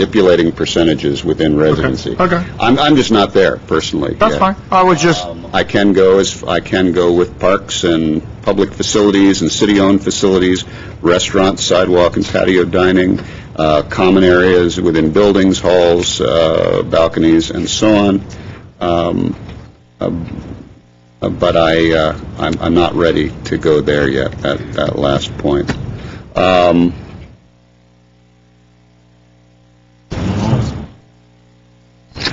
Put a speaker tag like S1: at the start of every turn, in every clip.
S1: manipulating percentages within residency.
S2: okay.
S1: I'm, I'm just not there personally.
S2: That's
S1: yet.
S2: fine. I was just,
S1: Um, I can go as, I can go with parks and public facilities and city-owned facilities, restaurants, sidewalk and patio dining, uh, common areas within buildings, halls, uh, balconies, and so on. Um, uh, But I, uh, I'm, I'm not ready to go there yet, at that last point. Um,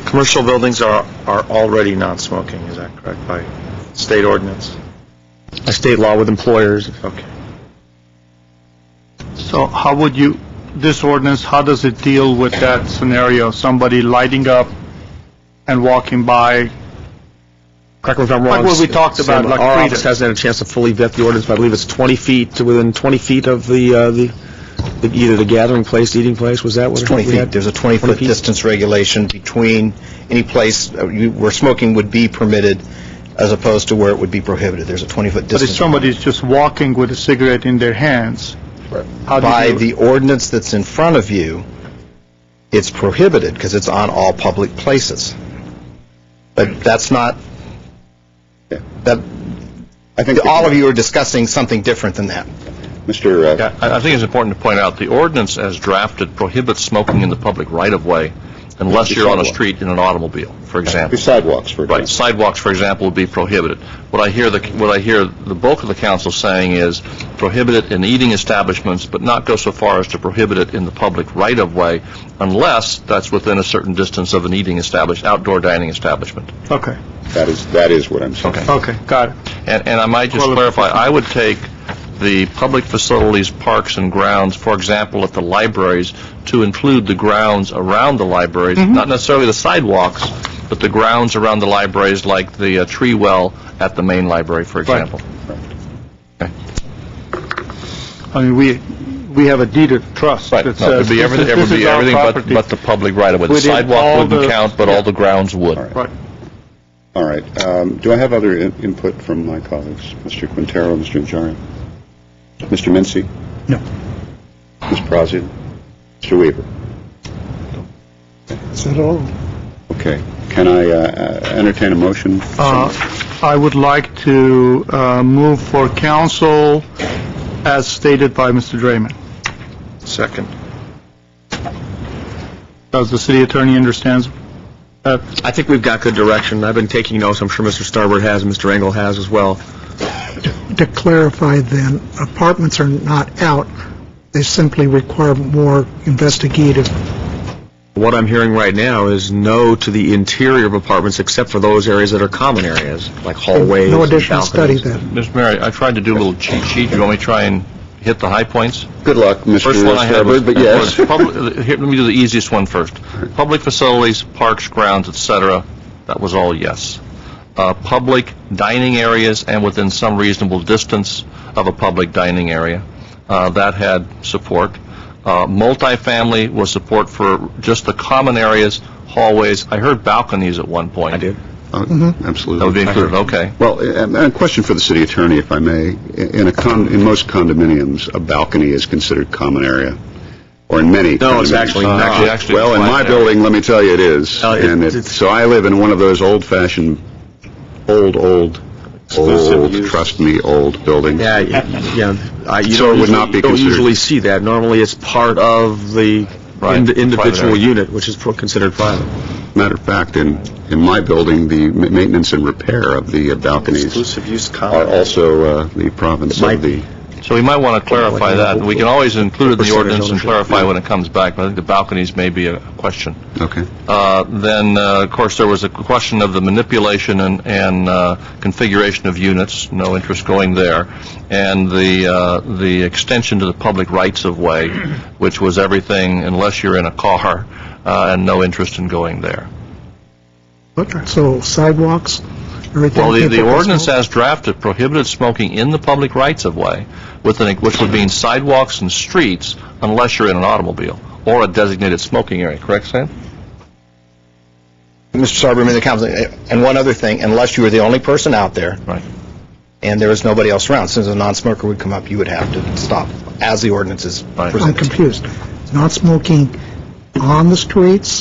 S3: Commercial buildings are, are already non-smoking, is that correct, by state ordinance?
S4: a state law with employers.
S3: Okay.
S2: so how would you, this ordinance, how does it deal with that scenario? Somebody lighting up and walking by?
S4: Correct me if I'm
S2: Like
S4: wrong.
S2: what we talked about,
S4: Sam,
S2: like
S4: Our
S2: freedom.
S4: office hasn't had a chance to fully vet the ordinance, but I believe it's 20 feet, to within 20 feet of the, uh, the, the- either the gathering place, eating place, was that what?
S5: It's 20
S4: we
S5: feet.
S4: had?
S5: There's a 20-foot
S4: feet?
S5: distance regulation between any place uh, you- where smoking would be permitted as opposed to where it would be prohibited. There's a 20-foot
S2: But if
S5: distance
S2: somebody's just walking with a cigarette in their hands, how do
S5: by
S2: you?
S5: the ordinance that's in front of you, it's prohibited because it's on all public places. But that's not,
S1: Yeah.
S5: that,
S1: I think,
S5: all of you are discussing something different than that.
S1: Mr. uh,
S6: Yeah, I I think it's important to point out, the ordinance as drafted prohibits smoking in the public right-of-way unless you're on a street in an automobile, for
S1: the
S6: example.
S1: sidewalks, for example.
S6: Right, sidewalks, for example, would be prohibited. What I hear, the what I hear the bulk of the council saying is prohibit it in eating establishments, but not go so far as to prohibit it in the public right-of-way unless that's within a certain distance of an eating establish, outdoor dining establishment.
S2: Okay,
S1: That is, that is what I'm saying.
S6: Okay.
S2: okay, got it.
S6: And, and I might just
S2: Well,
S6: clarify, I would take the public facilities, parks and grounds, for example, at the libraries, to include the grounds around the libraries,
S2: Mm-hmm.
S6: not necessarily the sidewalks, but the grounds around the libraries, like the uh, tree well at the main library, for example.
S2: I mean, we, we have a deed of trust
S6: Right,
S2: that
S6: no, it
S2: says
S6: would be
S2: this
S6: everything,
S2: is
S6: it would
S2: this
S6: be
S2: is our
S6: everything but,
S2: property.
S6: but the public right away. The
S2: Within all
S6: sidewalk
S2: the-
S6: wouldn't count, but all the grounds would.
S2: Right.
S1: All right. Um, Do I have other in- input from my colleagues? Mr. Quintero, Mr. Najarian? Mr. Mincy?
S4: No.
S1: Ms. Brazil? Mr. Weaver?
S4: Is that all?
S1: Okay. Can I uh, uh, entertain a motion?
S2: Uh, I would like to uh, move for council as stated by Mr. Draymond.
S3: Second.
S2: Does the city attorney understands? that?
S4: I think we've got good direction. I've been taking notes. I'm sure Mr. Starbird has, and Mr. Engel has as well.
S7: To clarify then, apartments are not out, they simply require more investigative.
S4: What I'm hearing right now is no to the interior of apartments except for those areas that are common areas, like hallways
S7: No
S4: and
S7: additional study
S4: balconies.
S7: then.
S6: Ms. Mary, I tried to do a little cheat sheet, you want me to try and hit the high points?
S1: Good luck, Mr.
S6: First one I had was...
S1: Starbird, but yes.
S6: was public- Here, let me do the easiest one first. Public facilities, parks, grounds, et cetera, that was all yes. Uh, Public dining areas and within some reasonable distance of a public dining area, uh, that had support. Uh, Multifamily was support for just the common areas, hallways. I heard balconies at one point.
S4: I did.
S1: Uh, Absolutely.
S6: That would be included, okay.
S1: Well, and- and a question for the city attorney, if I may. In a con, in most condominiums, a balcony is considered common area, or in many.
S4: No, it's
S1: condominiums.
S4: actually not.
S6: Actually- actually,
S1: Well, in
S6: it's
S1: my
S6: not.
S1: building, let me tell you, it is.
S4: No, it-
S1: And it-
S4: it's-
S1: so I live in one of those old-fashioned, old, old, old, trust me, old buildings.
S4: Yeah, y- yeah. I- you
S1: So it
S4: don't
S1: would not
S4: usually-
S1: be
S4: you don't
S1: considered-
S4: usually see that. Normally, it's part of the
S6: Right,
S4: ind-
S6: private
S4: individual
S6: area.
S4: unit, which is pro- considered private.
S1: Matter of fact, in, in my building, the ma- maintenance and repair of the uh, balconies
S3: Exclusive use
S1: are
S3: common.
S1: also uh, the province
S4: Might
S1: of the...
S6: So we might want to clarify that. We can always include it in the
S4: Percentage
S6: ordinance and
S4: ownership.
S6: clarify when it comes back, but I think the balconies may be a question.
S1: Okay.
S6: Uh, Then, uh, of course, there was a question of the manipulation and- and uh, configuration of units, no interest going there, and the uh, the extension to the public rights of way, which was everything unless you're in a car, uh, and no interest in going there.
S7: So sidewalks, everything.
S6: Well, the- the
S7: people can
S6: ordinance
S7: smoke.
S6: as drafted prohibited smoking in the public rights of way, with an- which would mean sidewalks and streets unless you're in an automobile or a designated smoking area, correct, Sam?
S5: Mr. Sarber, the council, and one other thing, unless you were the only person out there,
S6: Right.
S5: and there was nobody else around. Since a non-smoker would come up, you would have to stop as the ordinance is
S6: Right.
S5: presented.
S7: I'm confused. Not smoking on the streets